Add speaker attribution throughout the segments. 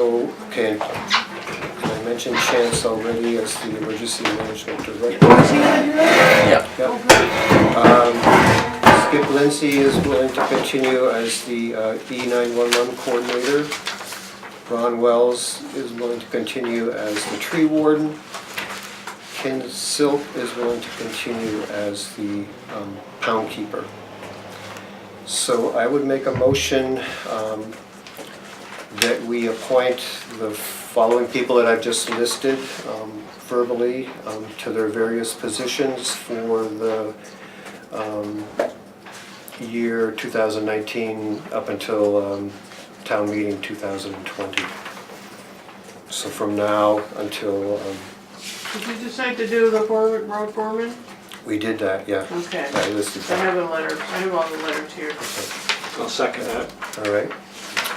Speaker 1: Okay. And I mentioned Chance already as the emergency management director.
Speaker 2: Yeah.
Speaker 1: Yep. Um, Skip Lindsey is willing to continue as the E nine-one-one coordinator. Ron Wells is willing to continue as the tree warden. Ken Silk is willing to continue as the um, pound keeper. So I would make a motion um, that we appoint the following people that I've just listed um, verbally um, to their various positions for the um, year 2019 up until um, town meeting 2020. So from now until, um,
Speaker 3: Did you decide to do the foreman, road foreman?
Speaker 1: we did that, yeah.
Speaker 3: Okay.
Speaker 1: I listed
Speaker 3: I
Speaker 1: that.
Speaker 3: have a letter, I have all the letters here.
Speaker 4: I'll second that.
Speaker 1: All right.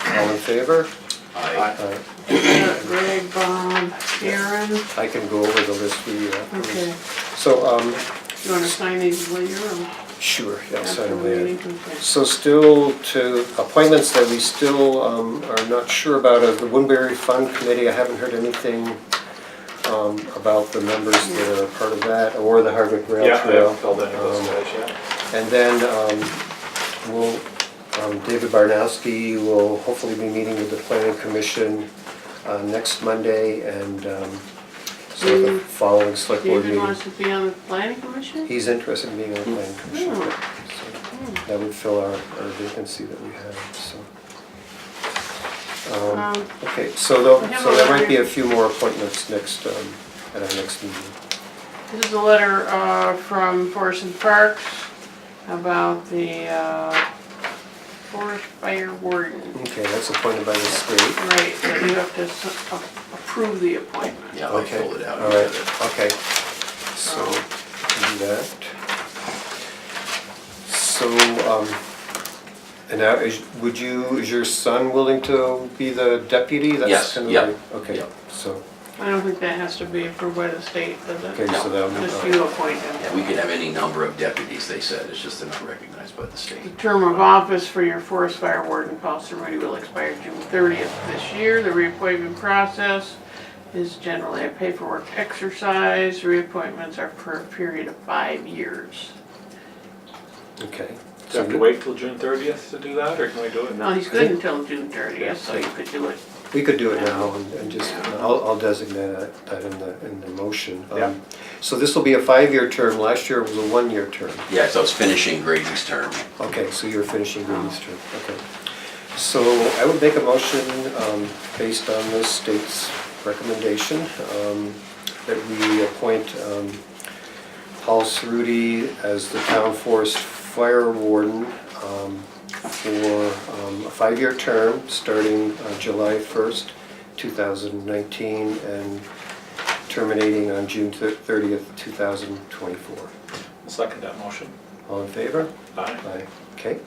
Speaker 1: All in favor? Uh,
Speaker 2: I,
Speaker 1: All right.
Speaker 3: Uh, Greg, Bob, Karen,
Speaker 1: I can go over the list we, uh,
Speaker 3: okay.
Speaker 1: so, um,
Speaker 3: You wanna sign these later or
Speaker 1: sure, yeah,
Speaker 3: after
Speaker 1: sign
Speaker 3: the
Speaker 1: them later.
Speaker 3: meeting? Okay.
Speaker 1: So still to appointments that we still um, are not sure about, uh, the Woodbury Fund Committee, I haven't heard anything um, about the members that are part of that, or the Hardwick Rail
Speaker 4: Yeah, I
Speaker 1: Trail.
Speaker 4: haven't filled any of those
Speaker 1: Um,
Speaker 4: guys yet.
Speaker 1: And then um, we'll, um, David Barnowski will hopefully be meeting with the planning commission uh, next Monday, and um, so the
Speaker 3: Mm.
Speaker 1: following select board
Speaker 3: David
Speaker 1: meeting.
Speaker 3: wants to be on the planning commission?
Speaker 1: He's interested in being on the planning commission.
Speaker 3: Oh,
Speaker 1: So That would fill our our vacancy that we have, so. Um,
Speaker 3: um,
Speaker 1: Okay, so though,
Speaker 3: I have
Speaker 1: so
Speaker 3: a
Speaker 1: there might be
Speaker 3: letter.
Speaker 1: a few more appointments next, um, at our next meeting.
Speaker 3: This is a letter uh, from Forest and Parks about the uh, forest fire warden.
Speaker 1: Okay, that's appointed by the state.
Speaker 3: Right, that you have to s- a- approve the appointment.
Speaker 2: yeah, I
Speaker 1: Okay.
Speaker 2: filled it out.
Speaker 1: All right, okay. So, do that. So, um, and now, is, would you, is your son willing to be the deputy? That's
Speaker 2: Yes,
Speaker 1: kind of
Speaker 2: yeah,
Speaker 1: like- Okay,
Speaker 2: yeah.
Speaker 1: so,
Speaker 3: I don't think that has to be approved by the state, does
Speaker 1: okay,
Speaker 3: it?
Speaker 1: so that'll be.
Speaker 3: Just you appoint him.
Speaker 2: Yeah, we could have any number of deputies, they said, it's just they're not recognized by the
Speaker 3: The
Speaker 2: state.
Speaker 3: term of office for your forest fire warden, Paul Cerruti, will expire June 30th this year. The reappointment process is generally a paperwork exercise. Reappointments are for a period of five years.
Speaker 1: Okay.
Speaker 4: Do you have to wait till June thirtieth to do that, or can we do it now?
Speaker 3: No, he's good until June 30th, so you could do it.
Speaker 1: We could do it now and and just, I'll, I'll designate that that in the, in the motion. Um,
Speaker 4: Yeah.
Speaker 1: So this will be a five-year term, last year was a one-year term.
Speaker 2: Yeah, so I was finishing Grady's term.
Speaker 1: Okay, so you're finishing Grady's term, okay. So I would make a motion um, based on the state's recommendation um, that we appoint um, Paul Cerruti as the town forest fire warden um, for um, a five-year term, starting uh, July 1st, 2019, and terminating on June thir- 30th, 2024.
Speaker 4: I'll Second that motion.
Speaker 1: All in favor?
Speaker 4: Aye.
Speaker 1: Aye. Okay.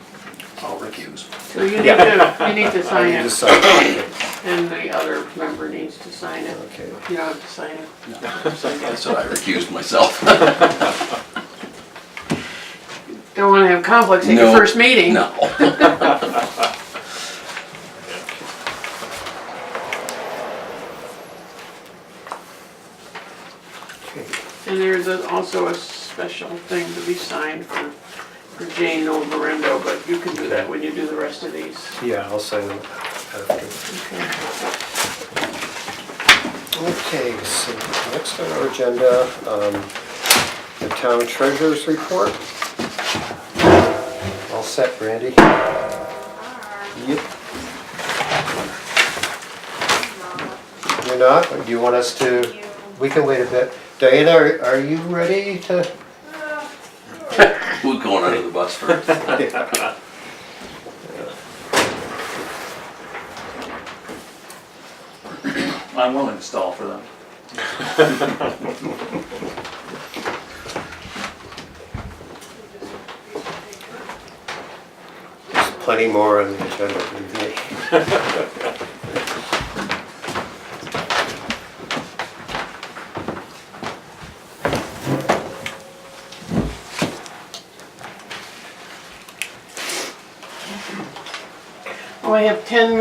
Speaker 2: I'll recuse.
Speaker 3: So you need to, you need to sign
Speaker 1: You
Speaker 3: it,
Speaker 1: decide. Okay.
Speaker 3: and the other member needs to sign it.
Speaker 1: Okay.
Speaker 3: You don't have to sign it.
Speaker 2: I said I recused myself.
Speaker 3: Don't wanna have conflicts at your
Speaker 2: No.
Speaker 3: first meeting.
Speaker 2: No.
Speaker 3: And there's a- also a special thing to be signed for, for Jane Novarendo, but you can do that when you do the rest of these.
Speaker 1: Yeah, I'll sign them after.
Speaker 3: Okay.
Speaker 1: Okay, so next on our agenda, um, the town treasurer's report. All set, Randy? Yep. You're not? Or Do you want us to, we can wait a bit. Diana, are are you ready to?
Speaker 2: Who's going under the bus first?
Speaker 5: I will install for them.
Speaker 1: There's plenty more on the agenda than me.
Speaker 3: Oh, I have ten